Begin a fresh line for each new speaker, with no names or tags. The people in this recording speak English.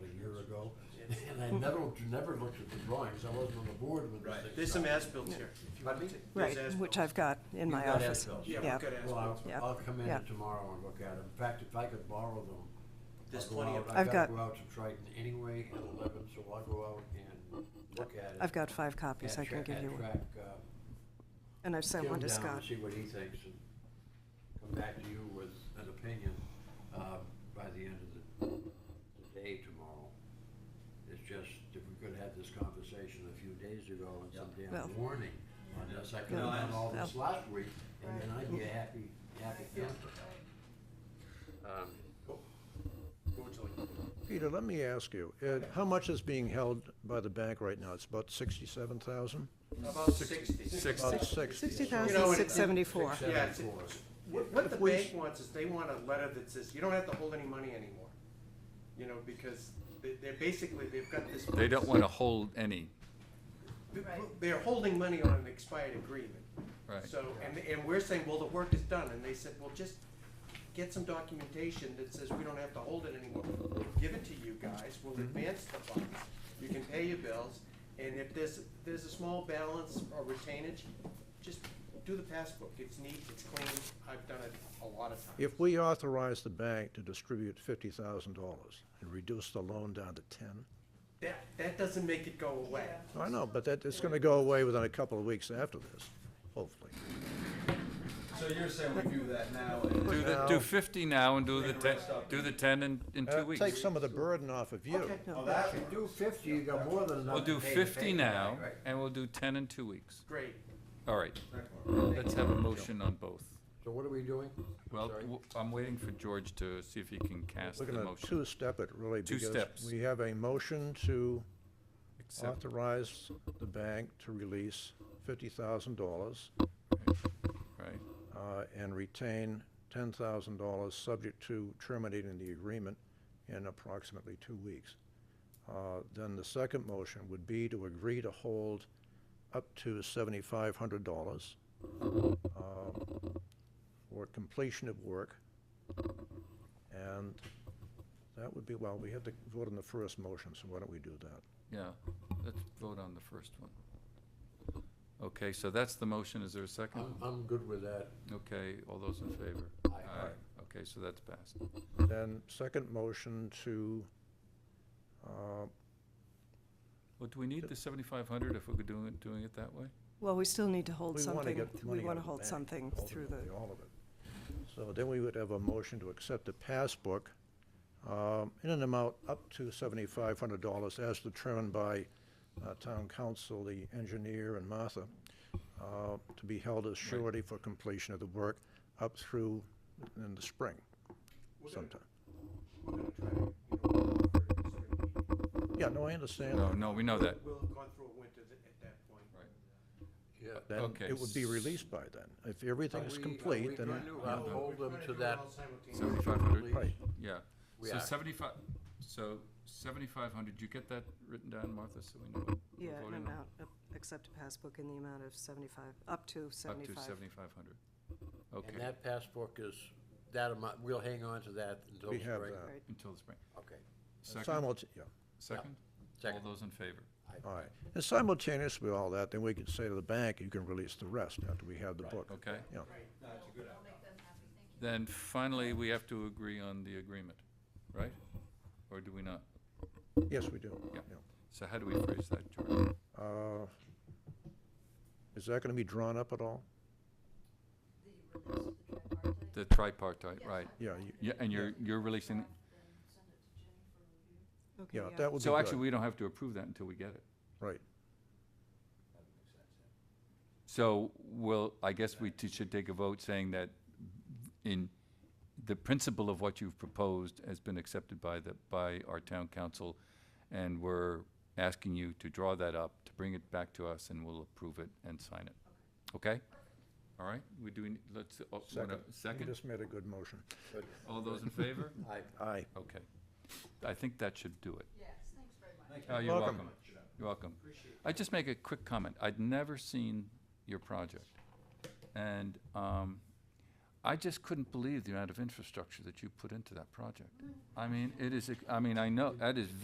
And I never, never looked at the drawings, I wasn't on the board when the
Right,
thing
there's some
started.
as-built here, if you want
Pardon
to.
me?
There's
Right,
as-built.
which I've got in
You've
my
got
office.
as-built.
Yeah,
yeah.
we've got
Well, I'll,
as-built.
Yeah.
I'll come in
Yeah.
tomorrow and look at them. In fact, if I could borrow them, I'll
There's
go
plenty
out-
of-
I've
gotta
got-
go out to Triton anyway at eleven, so I'll go out and look at it.
I've got five copies
and
I can
tra-
give
and
you, one.
track, uh,
and I've sent
Tim
one to
down
Scott.
and See what he thinks and come back to you with an opinion, uh, by the end of the, the day tomorrow. It's just, if we could have this conversation a few days ago and some
Well-
damn warning on this, I could have
No,
I
done all this
understand.
last week and then I'd be a happy, happy camper. Um,
Go to it.
Peter, let me ask you, uh, how much is being held by the bank right now? It's about sixty-seven thousand?
About sixty.
About sixty.
Sixty
You know,
thousand
it-
six seventy-four.
Six
Yeah, it's-
seventy-four.
What, what the
If we
bank
s-
wants is they want a letter that says, you don't have to hold any money anymore. You know, because they, they're basically, they've got this.
They don't want to hold any,
They're holding money on an expired agreement.
right?
So, and, and we're saying, well, the work is done, and they said, well, just get some documentation that says we don't have to hold it anymore. We'll Give it to you guys, we'll
Mm-hmm.
advance the funds, you can pay your bills, and if there's, there's a small balance or retainage, just do the passbook, it's neat, it's clean, I've done it a lot of times.
If we authorize the bank to distribute fifty thousand dollars and reduce the loan down to ten,
That, that doesn't make it go away.
I know, but that, it's gonna go away within a couple of weeks after this, hopefully.
So you're saying we do that now and
Do the, do fifty now and do the ten, do the ten in, in
Uh,
two weeks.
Take some of the burden off of you.
Oh, that works.
Do fifty, you got more than enough.
We'll do
to pay the
fifty
bank,
now
right?
and we'll do ten in two weeks.
Great,
All right,
That works.
let's have a motion on both.
So what are we doing?
Well,
Sorry.
w- I'm waiting for George to see if he can cast
We're
the
gonna
motion.
two-step it really
Two steps.
because we have a motion to
Accept-
authorize the bank to release fifty thousand dollars
Right,
uh, and retain ten thousand dollars, subject to terminating the agreement in approximately two weeks. Uh, Then the second motion would be to agree to hold up to seventy-five hundred dollars uh, for completion of work. And that would be, well, we had to vote on the first motion, so why don't we do that?
yeah, let's vote on the first one. Okay, so that's the motion, is there a second?
I'm, I'm good with that.
Okay, all those in favor?
Uh, Aye.
Okay, so that's passed.
Then second motion to, uh,
Well, do we need the seventy-five hundred if we're doing it, doing it that way?
Well, we still need to hold
We wanna
something,
get the
we
money out
want to
of the
hold
bank,
something through the,
ultimately, all of it. So then we would have a motion to accept the passbook um, in an amount up to seventy-five hundred dollars as determined by uh, town council, the engineer, and Martha, uh, to be held as surety for completion of the work up through in the spring sometime.
we're gonna try to, you know,
Yeah, no, I understand.
No,
that.
no, we know that.
we'll have gone through a winter th- at that point.
Yeah.
Then
Okay,
it would be released by then. If everything is complete, then,
I'll hold them to that.
Seventy-five hundred?
Right.
Yeah.
We
So
are.
seventy-five, so seventy-five hundred, you get that written down, Martha, so we know what
yeah,
we're
an
voting on?
amount, uh, accept a passbook in the amount of seventy-five, up to
Up to
seventy-five.
seventy-five hundred.
And
Okay,
that passbook is, that amount, we'll hang on to that until
We
spring.
have that.
Right.
until the spring.
Okay.
Second,
simultaneously, yeah.
second? All
Second.
those in favor?
All right. And simultaneous with all that, then we can say to the bank, you can release the rest after we have the book.
Okay.
Yeah.
Then finally, we have to agree on the agreement, right? Or do we not?
Yes, we do.
Yeah. So how do we phrase that, George?
Uh, Is that gonna be drawn up at all?
The tripartite, right?
Yeah, you-
Yeah, and you're, you're releasing, it.
Okay,
yeah, that would be
so actually,
good.
we don't have to approve that until we get it.
Right.
So, well, I guess we t- should take a vote saying that in, the principle of what you've proposed has been accepted by the, by our town council, and we're asking you to draw that up, to bring it back to us, and we'll approve it and sign it. Okay? All right, we do, need- let's, uh, wanna-
You
second?
just made a good motion.
All those in favor?
Aye.
Aye.
Okay. I think that should do it.
Yes, thanks very much.
Oh, you're
Welcome.
welcome. You're welcome. I just make a quick comment. I'd never seen your project. And um, I just couldn't
Mm.
believe the amount of infrastructure that you put into that project. I mean, it is, ex- I mean, I know, that is